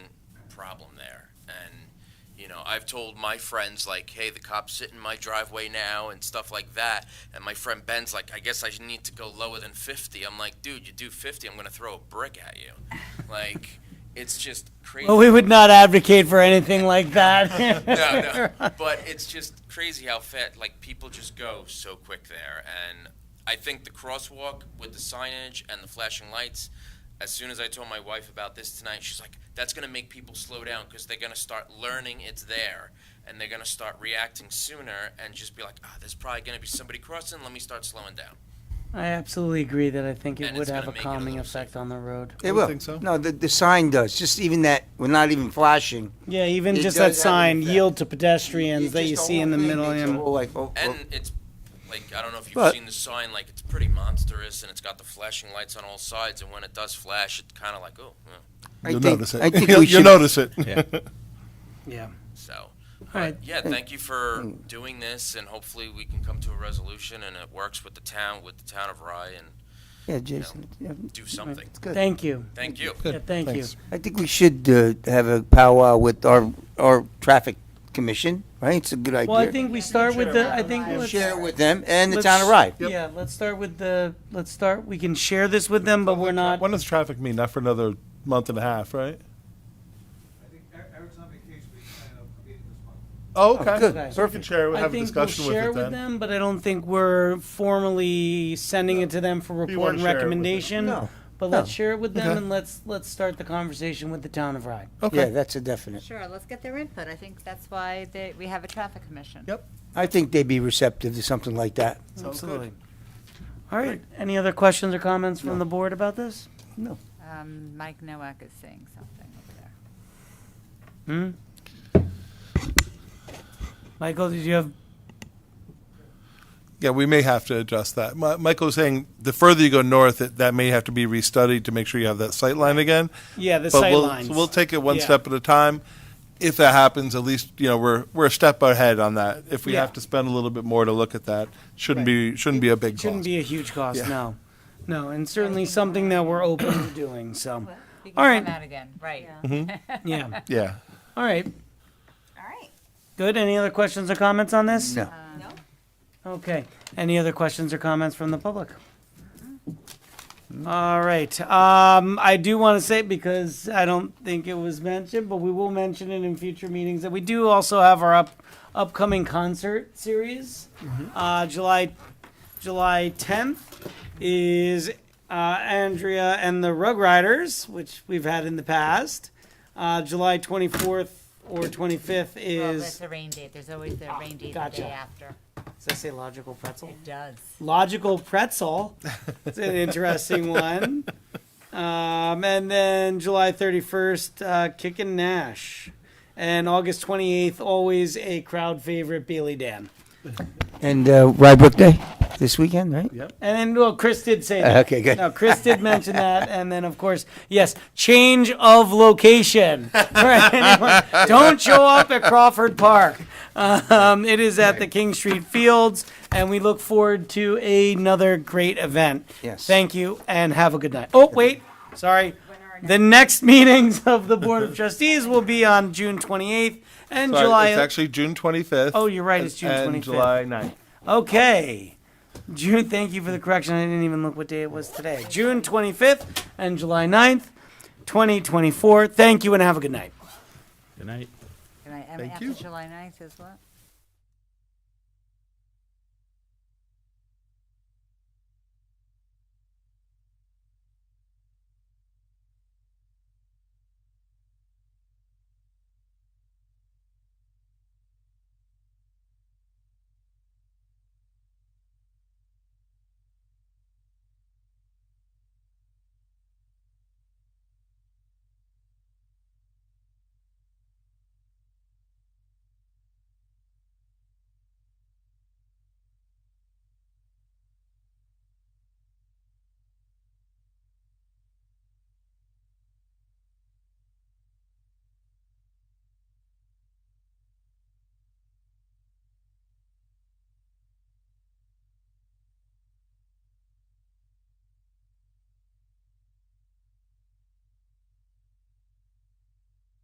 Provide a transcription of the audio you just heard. know, I've told my friends like, "Hey, the cops sit in my driveway now" and stuff like that. And my friend Ben's like, "I guess I need to go lower than 50." I'm like, "Dude, you do 50, I'm gonna throw a brick at you." Like, it's just crazy. Well, we would not advocate for anything like that. no, no. But it's just crazy how fat like people just go so quick there. And I think the crosswalk with the signage and the flashing lights. As soon as I told my wife about this tonight, she's like, "That's going to make people slow down because they're going to start learning it's there, and they're going to start reacting sooner, and just be like, ah, there's probably going to be somebody crossing. Let me start slowing down.'" I absolutely agree that I think it And would it's gonna have a make it a calming little effect on the road. It You will. think so? No, the, the sign does, just even that, we're not even flashing. Yeah, even It just does that have an sign, effect. yield to pedestrians that you see in the middle. of and- And it's like I don't know if you've But- seen the sign, like it's pretty monstrous, and it's got the flashing lights on all sides, and when it does flash, it's kind of like, oh, yeah. I You'll think- notice it. I think You'll- we You'll should, notice it. Yeah. so. All right. But yeah, thank you for doing this, and hopefully we can come to a resolution, and it works with the town, with the town of Rye, and yeah, Jason, yeah, do something. it's good. Thank you. Thank you. Yeah, thank you. Thanks. I think we should uh, have a powwow with our, our traffic commission, right? It's a good idea. Well, I think we start with the, I think We'll let's. Share with them and the town let's- of Rye. Yeah, let's start with the, let's start, we can share this with them, but we're not, When does traffic mean? Not for another month and a half, right? I think Er- Eric's on vacation, we plan on meeting this month. Oh, okay. good. okay. So we can share, it, I have a think we'll discussion with share it with then. them, but I don't think we're formally sending it to them for You report wanna and share it with them. recommendation. No, But no. let's share it with them Okay. and let's, let's start the conversation with the town of Rye. Yeah, Okay. that's a definite. Sure, let's get their input. I think that's why they, we have a traffic commission. Yep. I think they'd be receptive to something like that. Absolutely. All right, any other questions or comments from the board about this? Um, Mike Nowak is saying something over there. Hmm? Michael, did you have, Yeah, we may have to adjust that. Mi- Michael was saying, the further you go north, it- that may have to be restudied to make sure you have that sight line again. yeah, the But sight we'll- lines. so We'll take it one Yeah. step at a time. If that happens, at least, you know, we're, we're a step ahead on that. If we Yeah. have to spend a little bit more to look at that, shouldn't be, shouldn't be a big Shouldn't cost. be a huge cost, Yeah. no. No, and certainly something that we're open to doing, so, We All can right. come out again, right. yeah. Yeah. All right, All right. good. Any other questions or comments on this? Uh, No. Okay. Any other questions or comments from the public? All right. Um, I do want to say, because I don't think it was mentioned, but we will mention it in future meetings, that we do also have our up, upcoming concert series. Uh, July, July 10th is uh, Andrea and the Rugriders, which we've had in the past. Uh, July 24th or 25th Well, is, that's a rain date. There's always the rain date the gotcha. day after. does that say logical pretzel? It does. logical pretzel. It's an interesting one. Um, and then July 31st, uh, Kick and Nash. And August 28th, always a crowd favorite, Bailey Dam. And uh, Rybrook Day, this weekend, right? And then, well, Chris did say Uh, that. okay, good. No, Chris did mention that. And then, of course, yes, change of location. For anyone, Don't show up at Crawford Park. Um, it is at the King Street Fields, and we look forward to another great event. Yes. Thank you, and have a good night. Oh, wait, sorry. The next meetings of the Board of Trustees will be on June 28th and Sorry, July. It's actually June 25th. Oh, you're right, it's June and 25th. July 9th. Okay. June, thank you for the correction. I didn't even look what day it was today. June 25th and July 9th, 2024. Thank you and have a good night. Good night. Good night. And Thank after you. July 9th is what?